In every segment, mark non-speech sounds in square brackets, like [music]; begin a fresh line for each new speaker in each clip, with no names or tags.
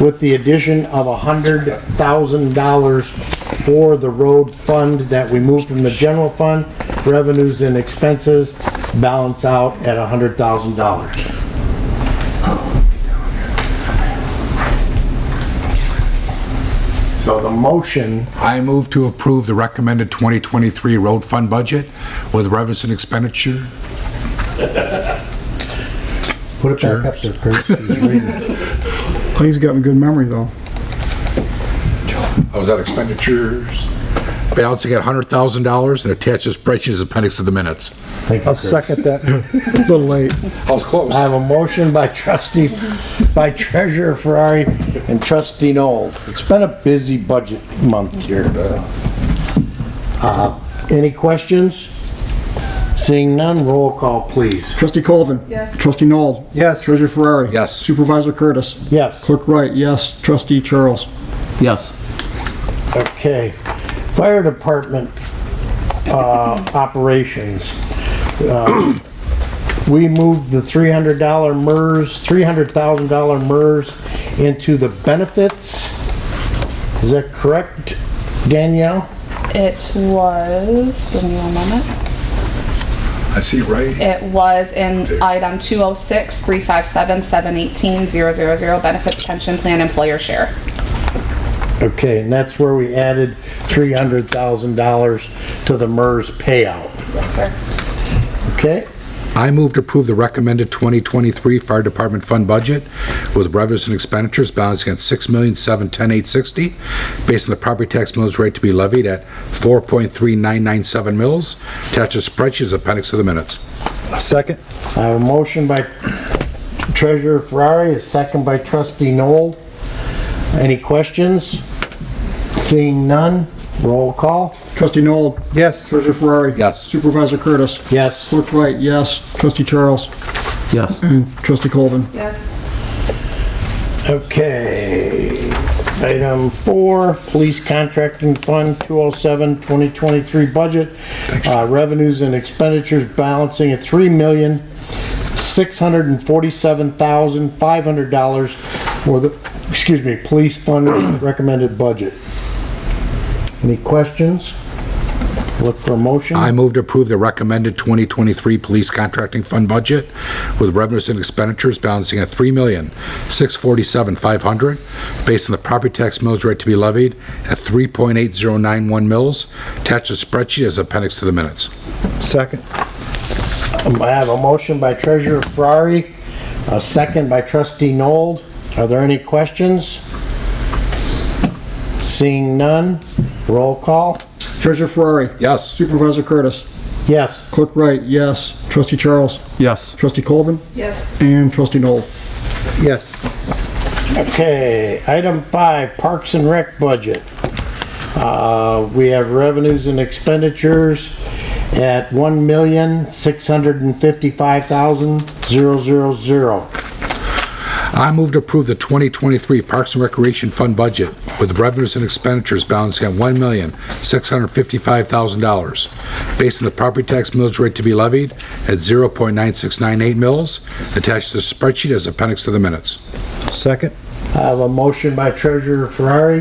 with the addition of a hundred thousand dollars for the road fund that we moved from the general fund, revenues and expenses balance out at a hundred thousand dollars. So the motion
I move to approve the recommended 2023 road fund budget with revenues and expenditure.
Put it back up there, Kurt. He's reading it.
He's got a good memory though.
I was at Oh, expenditures. Balancing at $100,000 and attached to spreadsheet as appendix to the minutes.
Thank you,
I'll
Kurt.
second that. A little late.
I was close.
I have a motion by trustee, by treasurer Ferrari and trustee Noel. It's been a busy budget month here. Uh, Any questions? Seeing none, roll call, please.
Trustee Colvin.
Yes.
Trustee Noel.
Yes.
Treasurer Ferrari.
Yes.
Supervisor Curtis.
Yes.
Clerk Wright, yes. Trustee Charles.
Yes.
Okay, fire department, uh, operations. Uh, We moved the three hundred dollar MERS, three hundred thousand dollar MERS into the benefits. Is that correct, Danielle?
It was, give me one moment.
I see, right?
It was in item 206, 357, 718, 000, benefits pension plan employer share.
Okay, and that's where we added three hundred thousand dollars to the MERS payout,
Yes, sir.
okay?
I move to approve the recommended 2023 fire department fund budget with revenues and expenditures balancing at $6,710,860 based on the property tax mills rate to be levied at 4.3997 mills. Attached to spreadsheet as appendix to the minutes.
Second.
I have a motion by Treasurer Ferrari, a second by Trustee Noel. Any questions? Seeing none, roll call.
Trustee Noel.
Yes.
Treasurer Ferrari.
Yes.
Supervisor Curtis.
Yes.
Clerk Wright, yes. Trustee Charles.
Yes.
Trustee Colvin.
Yes.
Okay. Item four, Police Contracting Fund 207, 2023 budget. Uh, Revenues and expenditures balancing at $3,647,500 for the, excuse me, Police Fund [clears throat] recommended budget. Any questions? Look for a motion.
I move to approve the recommended 2023 police contracting fund budget with revenues and expenditures balancing at $3,647,500 based on the property tax mills rate to be levied at 3.8091 mills. Attached to spreadsheet as appendix to the minutes.
Second.
I have a motion by Treasurer Ferrari, a second by Trustee Nold. Are there any questions? Seeing none, roll call.
Treasurer Ferrari.
Yes.
Supervisor Curtis.
Yes.
Clerk Wright, yes. Trustee Charles.
Yes.
Trustee Colvin.
Yes.
And Trustee Noel.
Yes. Okay, item five, Parks and Rec budget. Uh, We have revenues and expenditures at one million six hundred and fifty-five thousand zero zero zero.
I move to approve the 2023 Parks and Recreation Fund budget with revenues and expenditures balancing at $1,655,000 based on the property tax mills rate to be levied at 0.9698 mills. Attached to the spreadsheet as appendix to the minutes.
Second.
I have a motion by Treasurer Ferrari,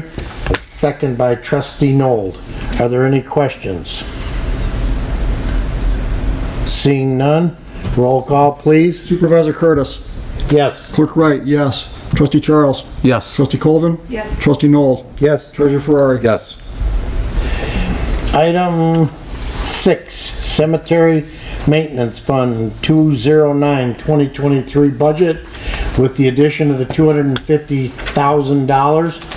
a second by Trustee Nold. Are there any questions? Seeing none, roll call, please.
Supervisor Curtis.
Yes.
Clerk Wright, yes. Trustee Charles.
Yes.
Trustee Colvin.
Yes.
Trustee Noel.
Yes.
Treasurer Ferrari.
Yes.
Item six, Cemetery Maintenance Fund 209, 2023 budget with the addition of the $250,000.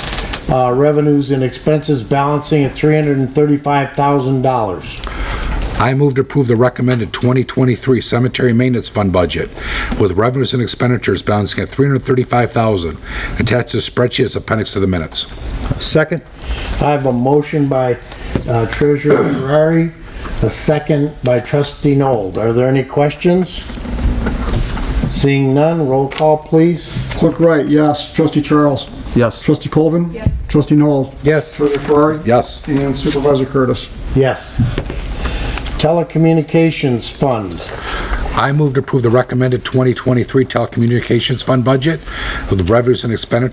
uh, Revenues and expenses balancing at $335,000.
I move to approve the recommended 2023 cemetery maintenance fund budget with revenues and expenditures balancing at 335,000. Attached to the spreadsheet as appendix to the minutes.
Second. I have a motion by uh, Treasurer Ferrari, a second by Trustee Nold. Are there any questions? Seeing none, roll call, please.
Clerk Wright, yes. Trustee Charles.
Yes.
Trustee Colvin. Yes. Trustee Noel.
Yes.
Treasurer Ferrari.
Yes.
And Supervisor Curtis.
Yes. Telecommunications Fund.
I move to approve the recommended 2023 telecommunications fund budget with revenues and expenditures